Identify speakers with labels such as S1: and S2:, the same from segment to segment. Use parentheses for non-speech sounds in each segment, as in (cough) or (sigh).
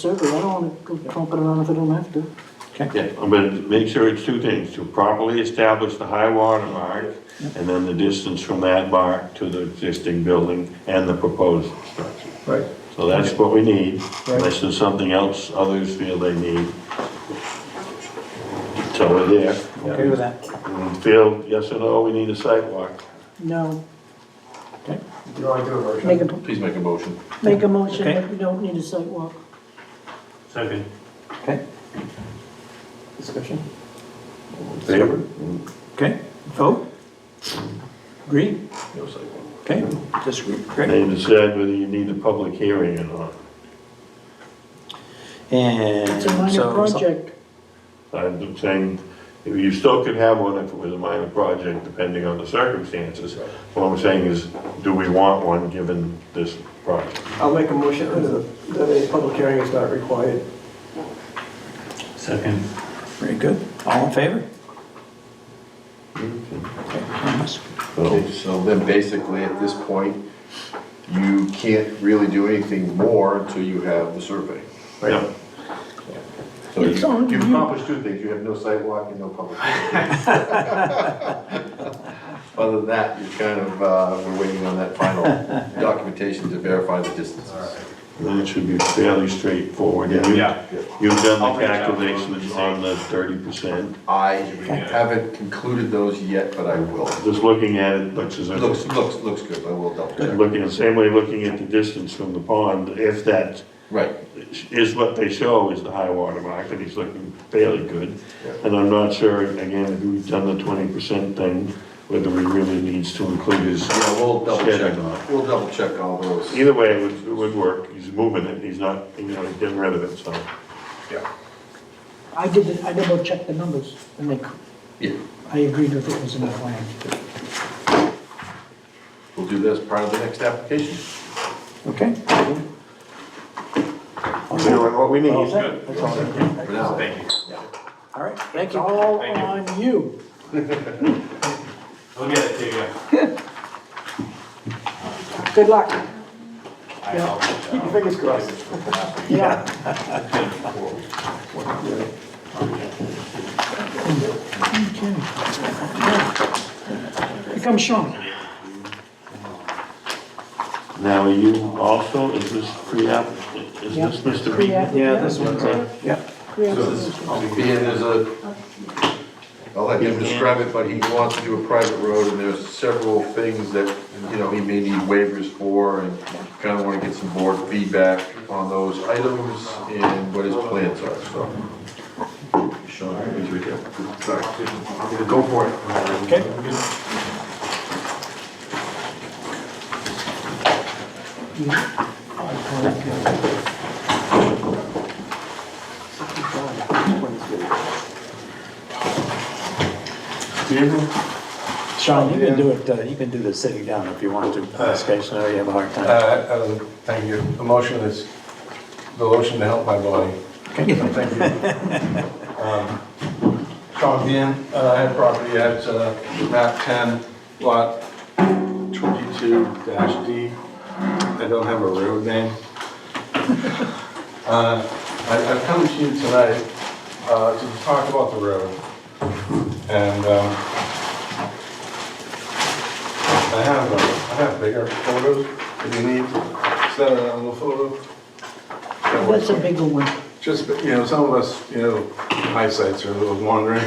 S1: survey, I don't wanna go trumping around if I don't have to.
S2: Yeah, I'm gonna make sure it's two things, to properly establish the high water mark, and then the distance from that mark to the existing building and the proposed structure.
S3: Right,
S2: So that's what we need,
S3: Right.
S2: unless there's something else others feel they need. So we're there.
S3: Okay with
S4: that.
S2: And Phil, yes or no, we need a sidewalk.
S1: No,
S3: you want to do a
S1: make
S3: version?
S1: a,
S5: Please make a motion.
S1: make a motion,
S4: Okay.
S1: but we don't need a sidewalk.
S2: Second.
S4: Okay. Discussion?
S2: Favor?
S4: Okay, vote? Agree?
S2: No sidewalk.
S4: Okay, disagree, great.
S2: They decide whether you need a public hearing or not.
S4: And
S1: It's a minor
S4: so-
S1: project,
S2: I'm saying, you still could have one if it was a minor project, depending on the circumstances. What I'm saying is, do we want one given this project?
S3: I'll make a motion that that a public hearing is not required.
S5: Second.
S4: Very good. All in favor? Okay, unanimous.
S2: So,
S5: So then basically at this point, you can't really do anything more until you have the survey.
S2: yeah.
S5: So
S1: It's on
S5: you- You've
S1: you.
S5: accomplished two things, you have no sidewalk and no public. hearing. Other than that, you're kind of, uh, we're waiting on that final documentation to verify the distances.
S2: Then it should be fairly straightforward. And you-
S6: Yeah.
S2: You've
S6: I'll
S2: done the
S6: reach out.
S2: calculations on the thirty percent.
S5: I haven't concluded those yet, but I will.
S2: Just looking at it, looks as if,
S5: Looks, looks, looks good, I will double check.
S2: looking, the same way looking at the distance from the pond, if that
S5: Right,
S2: is what they show is the high water mark, and he's looking fairly good.
S5: Yeah.
S2: And I'm not sure, again, if we've done the twenty percent thing, whether we really needs to include his.
S5: yeah, we'll double
S2: shed or not.
S5: check, we'll double check all those.
S2: Either way, it would, it would work, he's moving it, he's not, you know, he's getting rid of it, so.
S5: Yeah.
S1: I did, it- I double checked the numbers, and they,
S5: Yeah,
S1: I agreed with it was in the plan.
S5: we'll do that as part of the next application.
S4: Okay.
S2: We're doing what we
S4: All
S2: need.
S4: set? That's all.
S5: For now.
S6: Thank you.
S4: All right, thank
S1: It's
S4: you.
S1: all
S6: Thank you.
S1: on you.
S6: I'll get it to you.
S1: Good luck.
S6: I
S1: Yeah.
S6: helped, uh,
S3: Keep your fingers crossed.
S1: (laughs) Yeah. Okay. Here comes Sean.
S2: Now, are you also, is this pre-app, is
S1: Yeah.
S2: this Mr.
S1: Pre-app.
S2: Beaton?
S4: Yeah, this one's, a- yeah.
S5: So this, being there's a, I'll let him describe it, but he wants to do a private road, and there's several things that, you know, he may need waivers for, and kind of want to get some board feedback on those items and what his plans are, so. Sean, here's your deal. Sorry. Go for it.
S4: Okay. Sean, you can do it, uh, you can do the sitting down if you want to, in this case, I know you have a hard time.
S7: Uh, uh, Thank you. The motion is, the motion to help my body. Thank you. Um, Sean Bean, uh, I have property at uh, map 10, lot 22-D. I don't have a road name. Uh, I- I've come to you tonight uh, to talk about the road. And um, I have, uh, I have bigger photos if you need. Is that a little photo? That works.
S1: That's a bigger one.
S7: Just, you know, some of us, you know, eyesights are a little wandering.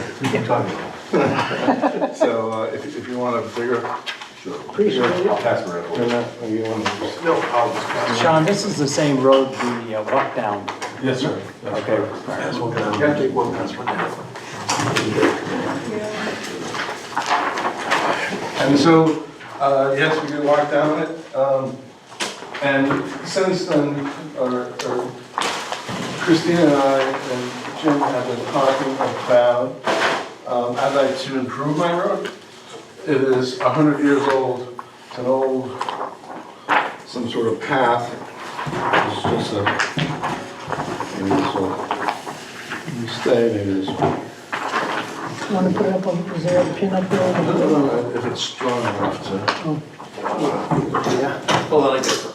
S7: So uh, if if you want a bigger.
S1: Appreciate it.
S7: Pass me around. No, you want to-
S5: No, I'll just.
S4: Sean, this is the same road we uh, walked down,
S7: Yes, sir.
S4: okay?
S5: Yeah, take one, that's one.
S7: And so, uh, yes, we did walk down it. um, And since then, or- or Christina and I and Jim have been talking about, um, I'd like to improve my road. It is 100 years old, it's an old, some sort of path. It's just a, maybe this will, stay, maybe this will.
S1: Want to put it up on, is there a pin up there?
S7: I don't know if it's strong enough to.
S5: Hold on, I got